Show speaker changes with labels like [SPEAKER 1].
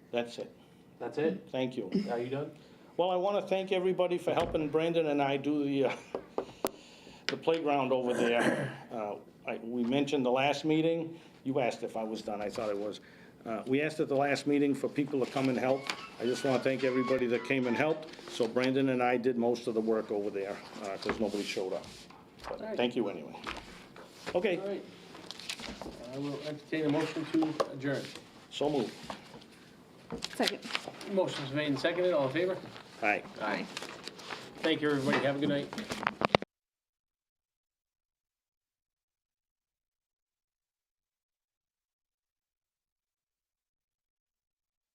[SPEAKER 1] That's it.
[SPEAKER 2] That's it?
[SPEAKER 1] Thank you.
[SPEAKER 2] Are you done?
[SPEAKER 1] Well, I want to thank everybody for helping Brandon and I do the, uh, the playground over there. Uh, I- We mentioned the last meeting, you asked if I was done, I thought I was. Uh, We asked at the last meeting for people to come and help. I just want to thank everybody that came and helped. So Brandon and I did most of the work over there, because nobody showed up. But thank you anyway. Okay,
[SPEAKER 2] All right. I will entertain a motion to adjourn.
[SPEAKER 1] so moved.
[SPEAKER 3] Second.
[SPEAKER 2] Motion's made and seconded, all in favor?
[SPEAKER 1] Aye.
[SPEAKER 3] Aye.
[SPEAKER 2] Thank you, everybody, have a good night.